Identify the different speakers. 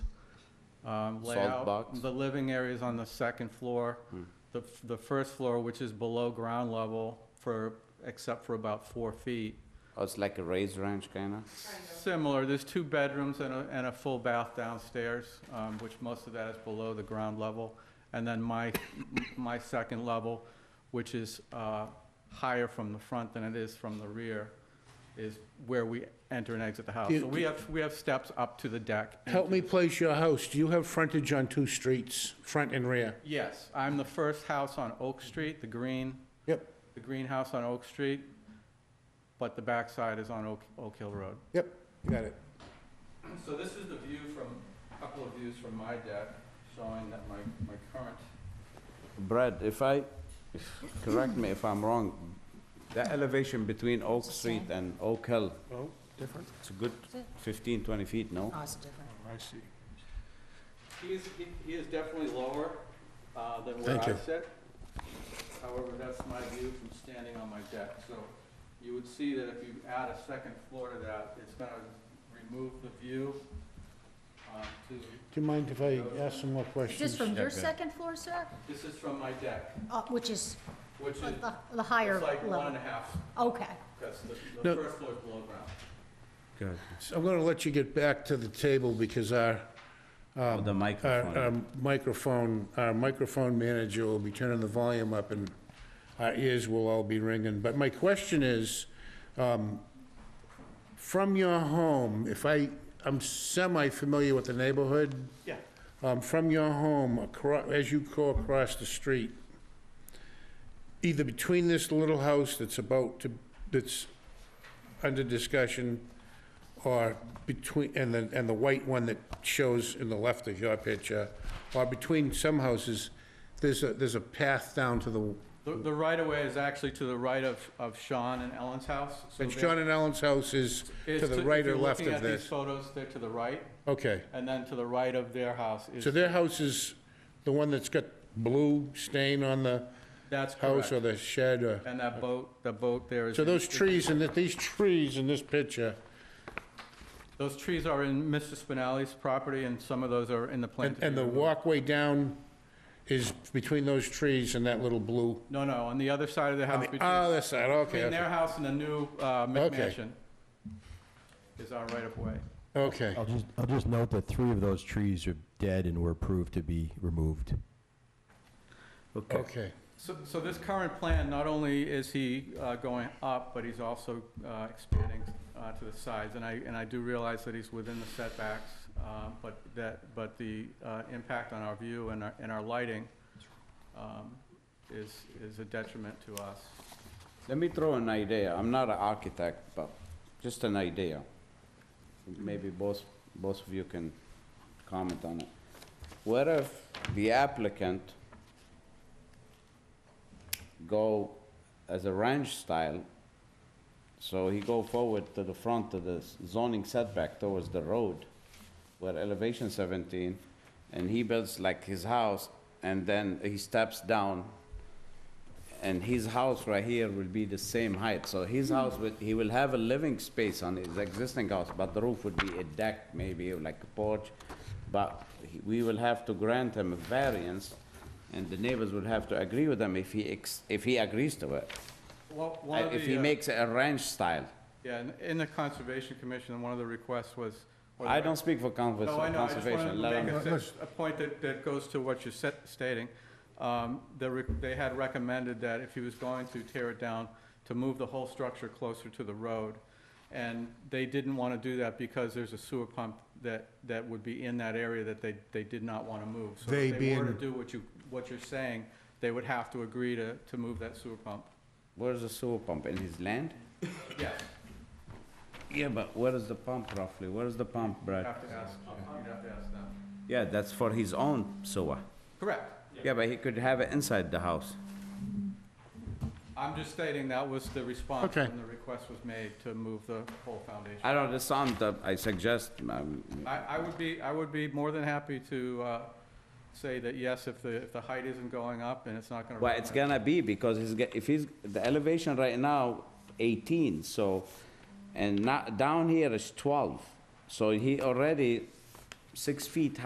Speaker 1: um,
Speaker 2: Salt
Speaker 1: layout.
Speaker 2: box? Hmm.
Speaker 1: The living area is on the second floor. The, f- the first floor, which is below ground level for, except for about four feet.
Speaker 2: Oh, it's like a raised ranch kind of?
Speaker 1: Similar, there's two bedrooms and a, and a full bath downstairs, um, which most of that is below the ground level. And then my, my second level, which is, uh, higher from the front than it is from the rear, is where we enter and exit the house.
Speaker 3: Do-
Speaker 1: So we have, we have steps up to the deck. and
Speaker 3: Help
Speaker 1: to
Speaker 3: me
Speaker 1: the-
Speaker 3: place your house. Do you have frontage on two streets, front and rear?
Speaker 1: Yes, I'm the first house on Oak Street, the green,
Speaker 3: Yep,
Speaker 1: the green house on Oak Street, but the backside is on Oak, Oak Hill Road.
Speaker 3: yep, got it.
Speaker 1: So this is the view from, a couple of views from my deck, showing that my, my current.
Speaker 2: Brad, if I, correct me if I'm wrong, the elevation between Oak Street and Oak Hill,
Speaker 3: Oh, different.
Speaker 2: it's a good 15, 20 feet, no?
Speaker 4: Oh, it's different.
Speaker 3: I see.
Speaker 1: He is, he- he is definitely lower, uh, than where
Speaker 3: Thank
Speaker 1: I
Speaker 3: you.
Speaker 1: sit. However, that's my view from standing on my deck, so you would see that if you add a second floor to that, it's gonna remove the view, um, to,
Speaker 3: Do you mind if I ask some more
Speaker 4: Is this
Speaker 3: questions?
Speaker 4: from your
Speaker 2: Okay.
Speaker 4: second floor, sir?
Speaker 1: this is from my deck,
Speaker 4: Uh, Which is
Speaker 1: which is,
Speaker 4: the the higher
Speaker 1: it's like one and
Speaker 4: level?
Speaker 1: a half
Speaker 4: Okay.
Speaker 1: Because the,
Speaker 3: No.
Speaker 1: the first floor is below ground.
Speaker 2: Good.
Speaker 3: So I'm gonna let you get back to the table because our,
Speaker 2: Oh,
Speaker 3: Um,
Speaker 2: the
Speaker 3: our
Speaker 2: microphone.
Speaker 3: our Uh, microphone, our microphone manager will be turning the volume up and our ears will all be ringing. But my question is, um, from your home, if I, I'm semi-familiar with the neighborhood,
Speaker 1: Yeah.
Speaker 3: um, from your home, acro- as you go across the street, either between this little house that's about to, that's under discussion, or between, and the, and the white one that shows in the left of your picture, or between some houses, there's a, there's a path down to the,
Speaker 1: The, the right of way is actually to the right of, of Sean and Ellen's house. So
Speaker 3: and
Speaker 1: they're-
Speaker 3: John and Ellen's house is
Speaker 1: is
Speaker 3: to the right
Speaker 1: if
Speaker 3: or
Speaker 1: you're
Speaker 3: left
Speaker 1: looking
Speaker 3: of
Speaker 1: at these
Speaker 3: this?
Speaker 1: Photos, they're to the right,
Speaker 3: Okay,
Speaker 1: and then to the right of their house
Speaker 3: so
Speaker 1: is,
Speaker 3: their house is the one that's got blue stain on the
Speaker 1: that's
Speaker 3: house
Speaker 1: correct.
Speaker 3: or the shed or?
Speaker 1: And that boat, the boat there is.
Speaker 3: So those trees in that, these trees in this picture,
Speaker 1: Those trees are in Mr. Spinelli's property, and some of those are in the plan.
Speaker 3: and, and the walkway down is between those trees and that little blue.
Speaker 1: No, no, on the other side of the house.
Speaker 3: On the
Speaker 1: between-
Speaker 3: other side, okay,
Speaker 1: Between their
Speaker 3: okay,
Speaker 1: house and the new, uh,
Speaker 3: Okay.
Speaker 1: McMansion is our right of way.
Speaker 3: okay.
Speaker 5: I'll just, I'll just note that three of those trees are dead and were approved to be removed.
Speaker 3: okay.
Speaker 1: So, so this current plan, not only is he uh, going up, but he's also uh, expanding uh, to the sides. And I, and I do realize that he's within the setbacks, uh, but that, but the uh, impact on our view and our, and our lighting um, is, is a detriment to us.
Speaker 2: Let me throw an idea. I'm not an architect, but just an idea. Maybe both, both of you can comment on it. What if the applicant go as a ranch style, so he go forward to the front of the zoning setback towards the road, where elevation 17, and he builds like his house, and then he steps down and his house right here will be the same height. So his
Speaker 1: Hmm.
Speaker 2: house, will- he will have a living space on his existing house, but the roof would be a deck, maybe like a porch. But he- we will have to grant him a variance, and the neighbors will have to agree with him if he, ex- if he agrees to it.
Speaker 1: Well, one of
Speaker 2: If he
Speaker 1: the, uh,
Speaker 2: makes it a ranch style.
Speaker 1: yeah, in- in the Conservation Commission, one of the requests was. or
Speaker 2: I
Speaker 1: the-
Speaker 2: don't speak for conver-
Speaker 1: No, I know, I just wanted
Speaker 2: conservation. let
Speaker 1: to
Speaker 2: him-
Speaker 1: make a, s- a point that, that goes to what you're set- stating. Um, the re- They had recommended that if he was going to tear it down, to move the whole structure closer to the road. And they didn't want to do that because there's a sewer pump that, that would be in that area that they, they did not want to move. So
Speaker 3: They
Speaker 1: if they were to
Speaker 3: being-
Speaker 1: do what you, what you're saying, they would have to agree to, to move that sewer pump.
Speaker 2: Where's the sewer pump? In his land?
Speaker 1: Yes,
Speaker 2: Yeah, but where is the pump roughly? Where is the pump,
Speaker 1: you'd
Speaker 2: Brad?
Speaker 1: have to ask, you'd have to ask them.
Speaker 2: Yeah, that's for his own sewer.
Speaker 1: Correct.
Speaker 2: Yeah, but he could have it inside the house.
Speaker 1: I'm just stating that was the response
Speaker 3: Okay.
Speaker 1: when the request was made to move the whole foundation.
Speaker 2: I don't, this sound that I suggest, um,
Speaker 1: I, I would be, I would be more than happy to uh, say that yes, if the, if the height isn't going up and it's not going to.
Speaker 2: well, it's gonna be, because he's, get- if he's, the elevation right now, 18, so, and not, down here is 12. So he already six feet